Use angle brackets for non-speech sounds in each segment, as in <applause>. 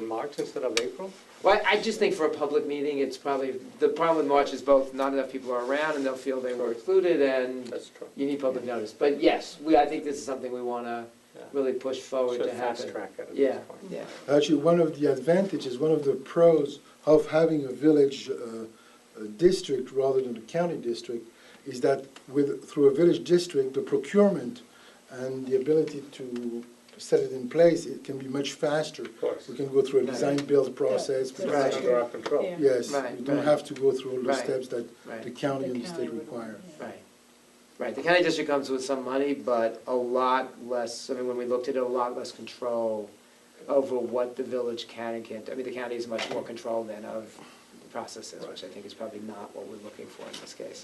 March instead of April? Well, I just think for a public meeting, it's probably, the problem with March is both not enough people are around and they'll feel they were excluded and That's true. you need public notice. But yes, we, I think this is something we want to Yeah. really push forward Should to fast happen. track it at Yeah, this point. yeah. Actually, one of the advantages, one of the pros of having a village uh, uh, district rather than a county district is that with, through a village district, the procurement and the ability to set it in place, it can be much faster. Of course. We can go through a design-build process. Yeah. It's Right. under our control. Yeah. Yes, Right, we don't right. have to go through all the Right. steps that the Right, county The and the county state would- require. yeah. right, right. The county district comes with some money, but a lot less, I mean, when we looked at it, a lot less control over what the village can and can't, do. I mean, the county is much more control than of the processes, which I think is probably not what we're looking for in this case.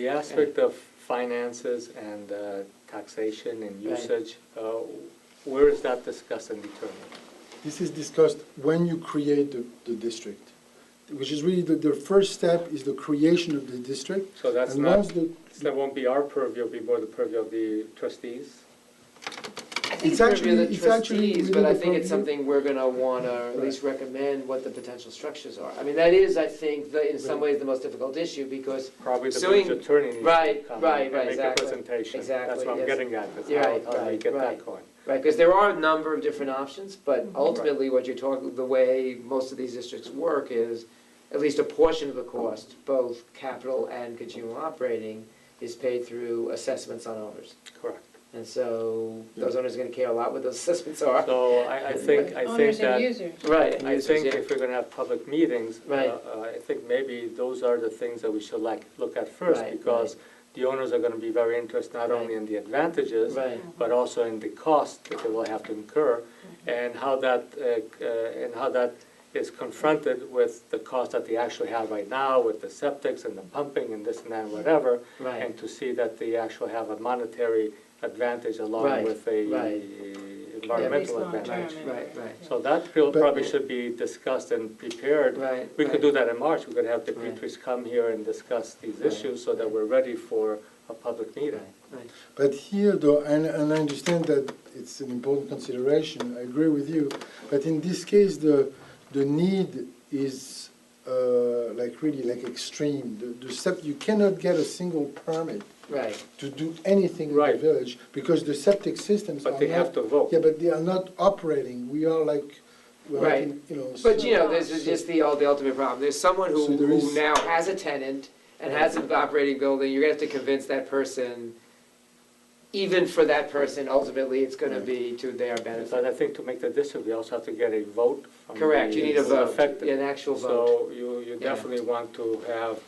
The aspect of finances and uh, taxation and Right. usage, uh, where is that discussed and determined? This is discussed when you create the, the district, which is really the, the first step is the creation of the district. So that's And not, once the- so that won't be our purview, it'll be more the purview of the trustees? I think it's It's actually, actually- the it's actually trustees, within but I the think it's purview. something we're gonna wanna at least recommend what the potential structures are. I mean, that is, I think, the, in some ways, the most difficult issue, because, Probably the Suing- village attorney needs to right, come right, and right, make a exactly, presentation. That's exactly, what I'm yes. getting at, is Yeah, how- how do we right, get right. that going? right, because there are a number of different options, but ultimately, what you're talking, the way most of these districts work is, at least a portion of the cost, both capital and consumer operating, is paid through assessments on owners. Correct. And so, those owners are gonna care a lot what those <laughs> assessments are. So I, I think, I think Owners and that, users. Right, I users, think yeah. if we're gonna have public meetings, uh, Right. uh, I think maybe those are the things that we should like, look at first, Right, because the owners are gonna be very interested not Right. only in the advantages, Right, but also in the cost that they will have to incur, and how that, uh, uh, and how that is confronted with the cost that they actually have right now, with the septics and the pumping and this and that, and whatever, right, and to see that they actually have a monetary advantage along Right, with a right. environmental At least advantage. long-term, Right, right. So that bill But- probably should be discussed and prepared. right. We could right. do that in March, we could have the Right. Dimitris come here and discuss these Right. issues so that we're ready for a public meeting. Right, right. But here, though, and, and I understand that it's an important consideration, I agree with you, but in this case, the, the need is, uh, like, really, like, extreme. The, the sept, you cannot get a single permit Right, to do anything in the Right. village, because the septic systems are But they have not- to vote. Yeah, but they are not operating, we are like, well, Right. in- you know. but so- you know, this is just the, the ultimate problem, there's someone who, So there who is- now has a tenant and has an operating building, you're gonna have to convince that person, even for that person, ultimately, it's gonna be to their benefit. But I think to make the decision, we also have to get a vote from the Correct, you need a vote, affected. an actual vote, So you, you Yeah. definitely want to have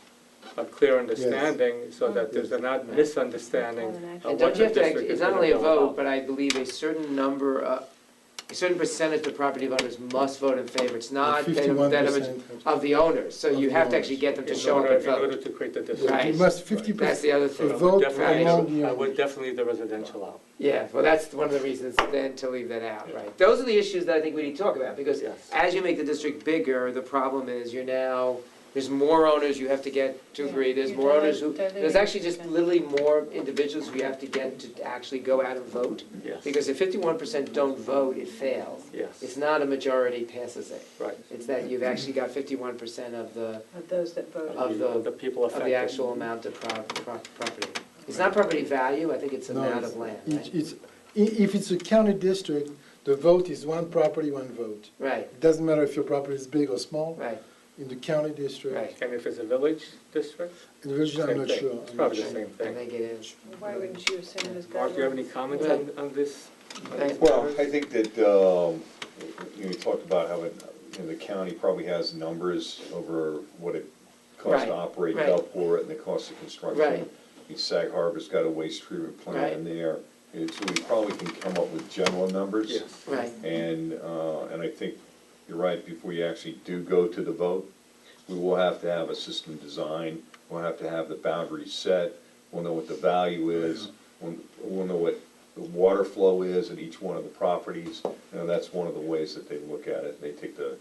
a clear understanding so that there's not Right. misunderstanding Call an action. of and uh, uh, what don't you the have to, act- district is it's not gonna only be a all vote, about. but I believe a certain number, of- a certain percentage of property owners must vote in favor, it's not that of- that of, a- 51% have- of the owners, so Of you the have to owners. actually get them to In show up order- and In order vote, to create the Yeah, district. You Right. must fifty that's percent, the other a thing. vote Definitely, Right. among the I would owners. definitely the residential out. Yeah, well, that's one of the reasons then to leave that out, right? Those are the issues that I think we need to talk about, because Yes. as you make the district bigger, the problem is you're now, there's more owners you have to get to agree, there's You're more owners who, dilu- diluting there's actually just them. literally more individuals who you have to get to actually go out and vote, Yes, because if fifty-one percent don't vote, it fails. It's yes, not a majority passes it, right. it's that you've actually got fifty-one percent of the, Of those that voted. Of the- people of affected. the actual amount of pro- pro- property. It's not property value, I think it's No, amount it's- of land, It's, right? it's, i- if it's a county district, the vote is one property, one vote. Right, It doesn't matter if your property is big or small, right, in the county district, right. And if it's a village district, in the region, I'm Same not thing. sure. It's I'm not probably the sure. same I thing. think it is. Why wouldn't you assume it's Mark, do you have government? any comments on, on this? on these Well, matters? I think that, um, you know, you talked about how it, you know, the county probably has numbers over what it costs Right, to operate right. Gulfport and the cost of construction. Right. I mean, Sag Harbor's got a waste treatment plant in there, and so we probably can come up with general numbers. Yes, Right, And, uh, and I think you're right, before you actually do go to the vote, we will have to have a system design, we'll have to have the boundaries set, we'll know what the value is, we'll, we'll know what the water flow is at each one of the properties. You know, that's one of the ways that they look at it, they take the,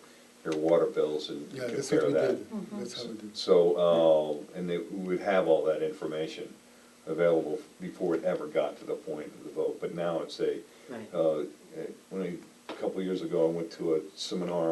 their water bills and Yeah, that's what compare we that. did, that's how we did. So, uh, and they, we would have all that information available before it ever got to the point of the vote, but now it's a, right. uh, when I, a couple of years ago, I went to a seminar